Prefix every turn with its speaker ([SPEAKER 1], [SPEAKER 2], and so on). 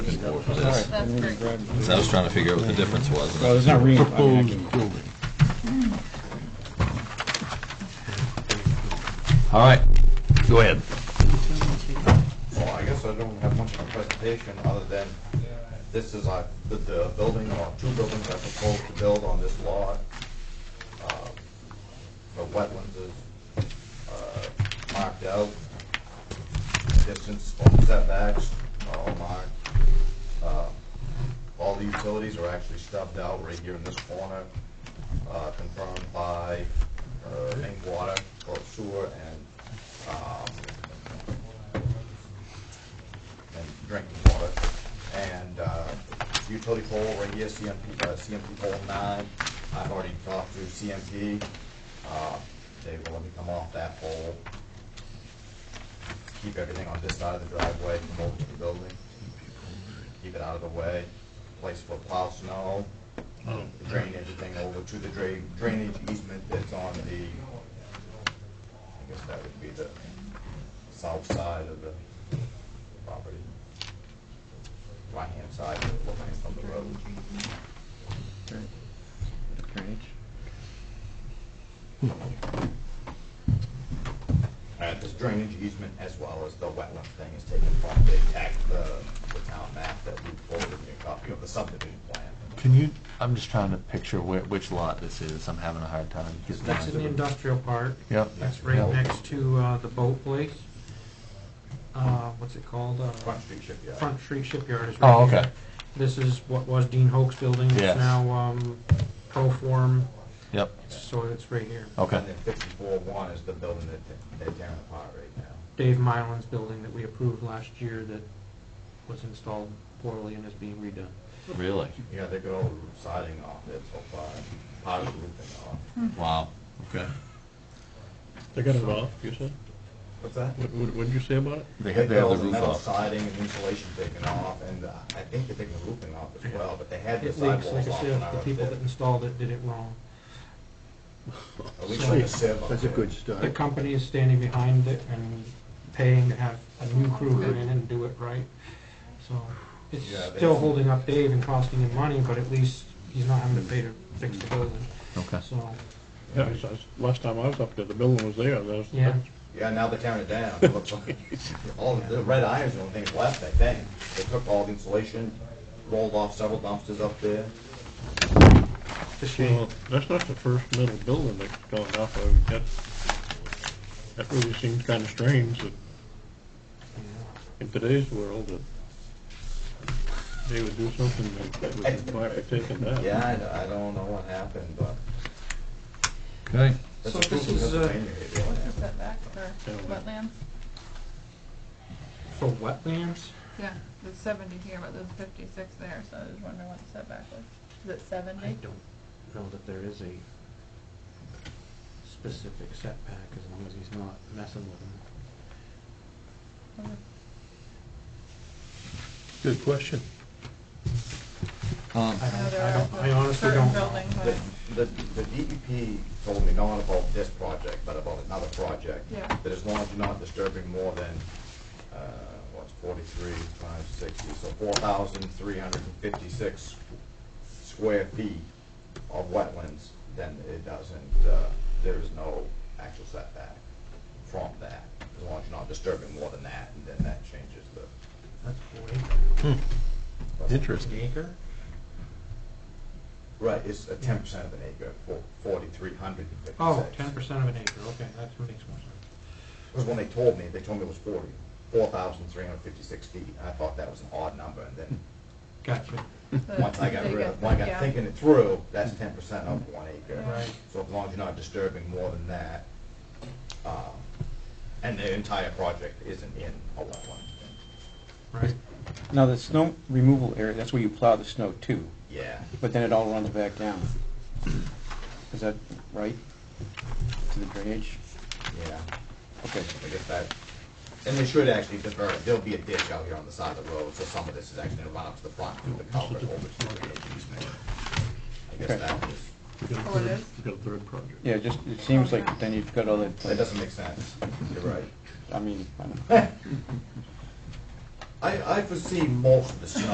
[SPEAKER 1] for what it is.
[SPEAKER 2] That's great.
[SPEAKER 1] So I was trying to figure out what the difference was.
[SPEAKER 3] Well, Oh, it's not re, I mean, I
[SPEAKER 4] Proposed
[SPEAKER 3] can-
[SPEAKER 4] building.
[SPEAKER 1] All right, go ahead.
[SPEAKER 5] Well, I guess I don't have much of a presentation, other than this is a, the- the building, or two buildings I propose to build on this lot. Um, The wetlands is uh, marked out, distance from setbacks are all marked. Uh, All the utilities are actually stubbed out right here in this corner, uh, confirmed by uh, main water, or sewer, and um, and drinking water. And uh, utility pole right here, CMP, uh, CMP pole nine, I've already talked to CMP. Uh, They will let me come off that pole. Keep everything on this side of the driveway, come over to the building. Keep it out of the way, place for plow snow, drain everything over to the drain, drainage easement that's on the, I guess that would be the south side of the property. Right-hand side, looking from the road. Uh, this drainage easement as well as the wetland thing is taken from the tax, the, the town map that we forwarded me a copy of the subdivision plan.
[SPEAKER 1] Can you, I'm just trying to picture whi- which lot this is. I'm having a hard time getting
[SPEAKER 6] That's in the
[SPEAKER 1] mine.
[SPEAKER 6] industrial park.
[SPEAKER 1] Yep.
[SPEAKER 6] That's right next to uh, the boat place. Uh, What's it called? Uh,
[SPEAKER 5] Front Street Shipyard.
[SPEAKER 6] Front Street Shipyard is right
[SPEAKER 1] Oh,
[SPEAKER 6] here.
[SPEAKER 1] okay.
[SPEAKER 6] This is what was Dean Hoke's building.
[SPEAKER 1] Yes.
[SPEAKER 6] It's now um, Proform,
[SPEAKER 1] Yep,
[SPEAKER 6] so it's right here.
[SPEAKER 1] okay.
[SPEAKER 5] And then fifty-four one is the building that they- they're tearing apart right now.
[SPEAKER 6] Dave Mylan's building that we approved last year that was installed poorly and is being redone.
[SPEAKER 1] Really?
[SPEAKER 5] Yeah, they got all the roof siding off it so far, part of the roofing off.
[SPEAKER 1] Wow, okay.
[SPEAKER 4] They got it off, you said?
[SPEAKER 5] What's that?
[SPEAKER 4] What, what what did you say about it?
[SPEAKER 1] They had, they had
[SPEAKER 5] all
[SPEAKER 1] the roof
[SPEAKER 5] metal
[SPEAKER 1] off.
[SPEAKER 5] siding and insulation taken off, and uh, I think they're taking the roofing off as well, but they had the
[SPEAKER 6] It leaks, like
[SPEAKER 5] sidewalls
[SPEAKER 6] I
[SPEAKER 5] off when I
[SPEAKER 6] said, the
[SPEAKER 5] was
[SPEAKER 6] people
[SPEAKER 5] there.
[SPEAKER 6] that installed it did it wrong.
[SPEAKER 5] At least like a sieve.
[SPEAKER 4] Oh, That's a good start.
[SPEAKER 6] The company is standing behind it and paying to have a new crew come in and do it right. So it's
[SPEAKER 5] Yeah, they-
[SPEAKER 6] still holding up Dave and costing him money, but at least he's not having to pay to fix the building.
[SPEAKER 1] Okay.
[SPEAKER 6] So,
[SPEAKER 4] Yeah, I saw- last time I was up there, the building was there, there's,
[SPEAKER 6] yeah,
[SPEAKER 5] Yeah, now they're tearing it down. It looks like- All, the the red iron's the only thing that's left, I think. They took all the insulation, rolled off several dumpsters up there.
[SPEAKER 6] it's a shame.
[SPEAKER 4] well, that's not the first metal building that's gone off of, that, that really seems kinda strange that in today's world that they would do something that- that would require it taken down.
[SPEAKER 5] Yeah, I, I don't know what happened, but.
[SPEAKER 1] Okay.
[SPEAKER 5] that's
[SPEAKER 6] So
[SPEAKER 5] a
[SPEAKER 6] this
[SPEAKER 5] proof of
[SPEAKER 6] is, uh,
[SPEAKER 5] Pennsylvania area.
[SPEAKER 2] What's the setback for
[SPEAKER 4] Yeah.
[SPEAKER 2] wetlands?
[SPEAKER 6] For wetlands,
[SPEAKER 2] Yeah, there's seventy here, but there's fifty-six there, so I was wondering what the setback was. Is it
[SPEAKER 6] I
[SPEAKER 2] seventy?
[SPEAKER 6] don't know that there is a specific setback as long as he's not messing with them.
[SPEAKER 4] Good question.
[SPEAKER 1] Um,
[SPEAKER 6] I
[SPEAKER 2] I know
[SPEAKER 6] don't,
[SPEAKER 2] there
[SPEAKER 6] I
[SPEAKER 2] are
[SPEAKER 6] don't, I honestly
[SPEAKER 2] certain
[SPEAKER 6] don't know.
[SPEAKER 2] buildings,
[SPEAKER 5] The,
[SPEAKER 2] but
[SPEAKER 5] the the DEP told me not about this project, but about another project.
[SPEAKER 2] Yeah.
[SPEAKER 5] That as long as you're not disturbing more than, uh, what's forty-three times sixty, so four thousand three hundred and fifty-six square feet of wetlands, then it doesn't, uh, there is no actual setback from that. As long as you're not disturbing more than that, and then that changes the.
[SPEAKER 6] That's forty,
[SPEAKER 4] Interesting.
[SPEAKER 6] an acre?
[SPEAKER 5] Right, it's a ten percent of an acre, for forty-three hundred and fifty-six.
[SPEAKER 6] Oh, ten percent of an acre, okay, that makes more sense.
[SPEAKER 5] Because when they told me, they told me it was forty, four thousand three hundred fifty-six feet, and I thought that was an odd number, and then,
[SPEAKER 6] Gotcha.
[SPEAKER 2] the-
[SPEAKER 5] once I got
[SPEAKER 2] they
[SPEAKER 5] rid of, when I
[SPEAKER 2] yeah.
[SPEAKER 5] got thinking it through, that's ten percent of one acre.
[SPEAKER 6] Right.
[SPEAKER 5] So as long as you're not disturbing more than that, um, and the entire project isn't in a wetland.
[SPEAKER 6] Right.
[SPEAKER 7] Now, the snow removal area, that's where you plow the snow too,
[SPEAKER 5] Yeah,
[SPEAKER 7] but then it all runs back down. Is that right? To the drainage?
[SPEAKER 5] yeah,
[SPEAKER 7] Okay.
[SPEAKER 5] I guess that, and they should actually divert, there'll be a ditch out here on the side of the road, so some of this is actually gonna run up to the front, through the culvert over to the drainage easement. I guess
[SPEAKER 7] Okay.
[SPEAKER 5] that is,
[SPEAKER 4] We got a
[SPEAKER 2] Oh, it
[SPEAKER 4] third-
[SPEAKER 2] is?
[SPEAKER 4] we got a third project.
[SPEAKER 7] Yeah, just, it seems like then you've got all
[SPEAKER 5] that
[SPEAKER 7] that,
[SPEAKER 5] doesn't make sense, you're right.
[SPEAKER 7] I mean, I don't know.
[SPEAKER 5] I, I foresee most of the snow